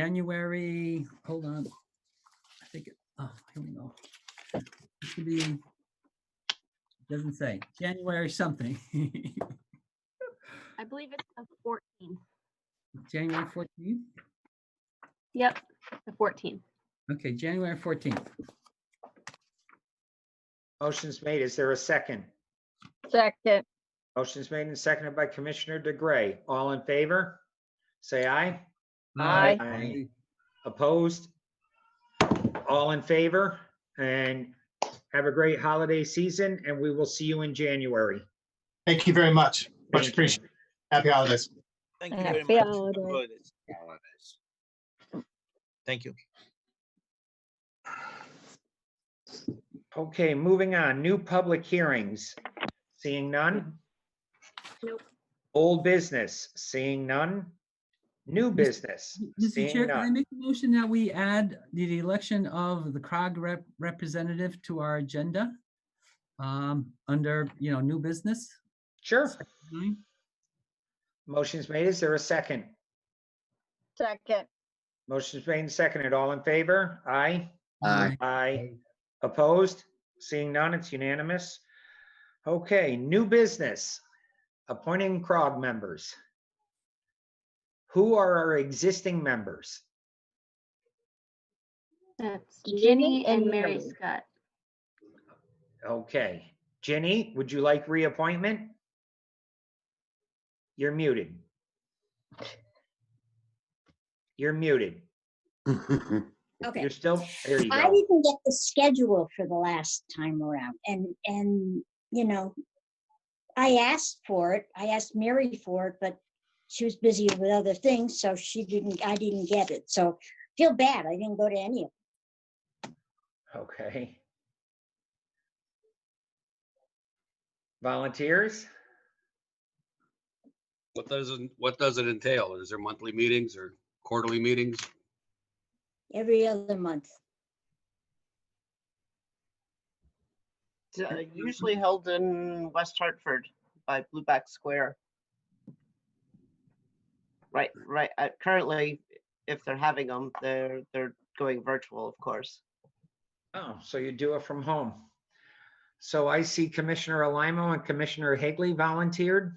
January, hold on. I think, it- oh, here we go. It should be, doesn't say, January something. I believe it's the fourteenth. January 14th? Yep, the fourteenth. Okay, January 14th. Motion's made. Is there a second? Second, Motion's made and seconded by Commissioner DeGray. All in favor? Say aye. Aye. Aye. Opposed? All in favor? And have a great holiday season, and we will see you in January. Thank you very much. Thank Much you. appreciated. Happy holidays. Thank you And very happy much. holidays. Holidays. Holidays. Thank you. Okay, moving on. New public hearings. Seeing none? Nope. Old business. Seeing none? New business. Mr. Chair, Seeing can I none. make a motion that we add the election of the CROG rep- representative to our agenda? um, Under, you know, new business? Sure. nine? Motion's made. Is there a second? second, Motion's made and seconded. All in favor? Aye. Aye. Opposed? Seeing none, it's unanimous. Okay, new business, appointing CROG members. Who are our existing members? That's Ginny Ginny and and Mary Mary. Scott. Okay, Ginny, would you like reappointment? You're muted. You're muted. Okay, You're still, there you I go. didn't get the schedule for the last time around, and, and, you know, I asked for it, I asked Mary for it, but she was busy with other things, so she didn't, I didn't get it, so feel bad, I didn't go to any of Okay. Volunteers? What does, it- what does it entail? Is there monthly meetings or quarterly meetings? it, every other month. It's, uh, usually held in West Hartford by Blueback Square. Right, right, uh, currently, if they're having them, they're, they're going virtual, of course. Oh, so you do it from home. So I see Commissioner Alamo and Commissioner Higley volunteered.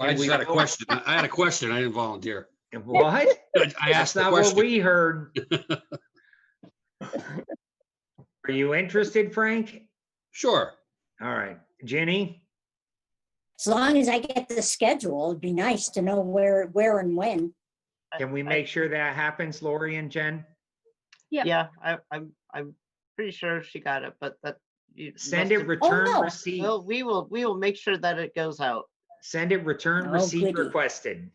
I And we just had a know- question. I I had a question. I didn't volunteer. What? I That's asked the not what question. we heard. Are you interested, Frank? Sure. All right, Jenny? As long as I get the schedule, it'd be nice to know where, where and when. I- Can we I- make sure that happens, Lori and Jen? Yep. Yeah, I, I'm, I'm pretty sure she got it, but that. you Send must Oh, it have- return no. receipt, Well, we will, we will make sure that it goes out. send it return Oh, receipt goody. requested.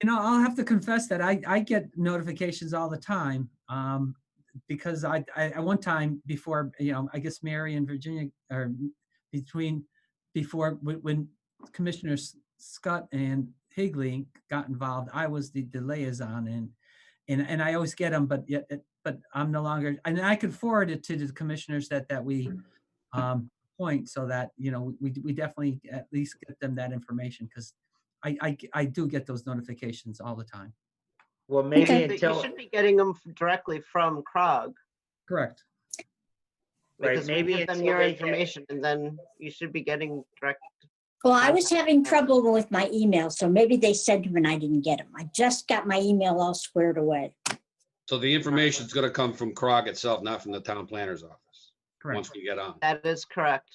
You know, I'll have to confess that I, I get notifications all the time. Um, because I, I, at one time before, you know, I guess Mary and Virginia or between, before, when, when Commissioner S- Scott and Higley got involved, I was the, the liaison and, and, and I always get them, but yet, it- but I'm no longer, and I could forward it to the commissioners that, that we, um, point so that, you know, we, we definitely at least get them that information because I, I, g- I do get those notifications all the time. Well, maybe Okay. But You until, should be getting them directly from CROG. Correct. Right, because we maybe give them until Your they get- information, and then you should be getting direct Well, I was having trouble with my email, so maybe they sent them and I didn't get them. I just got my email all squared away. So the information's going to come from CROG itself, not from the town planner's office, once Correct. we get on. That is correct.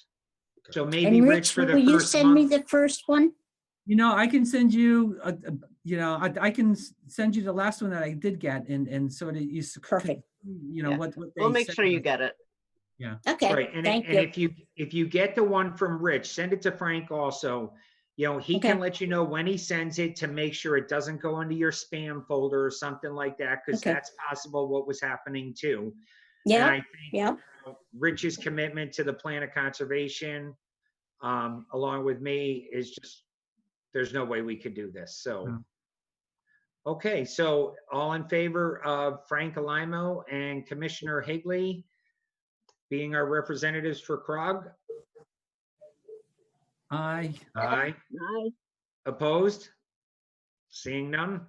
so maybe And Rich Rich, for will the you first send me month. the first one? You know, I can send you, a- a- you know, I, I can s- send you the last one that I did get and, and sort of you. s- c- Perfect. You know, Yeah. what, what. We'll they make sent sure you us. get it. Okay, Right, and, i- thank and you. if you, if you get the one from Rich, send it to Frank also. You know, he can Okay. let you know when he sends it to make sure it doesn't go into your spam folder or something like that, because Okay. that's possible what was happening too. And I Yeah, think yeah, Rich's commitment to the plan of conservation, um, along with me, is just, there's no way we could do this, so. Yeah. Okay, so all in favor of Frank Alamo and Commissioner Higley being our representatives for CROG? I, Aye. Opposed? Seeing none,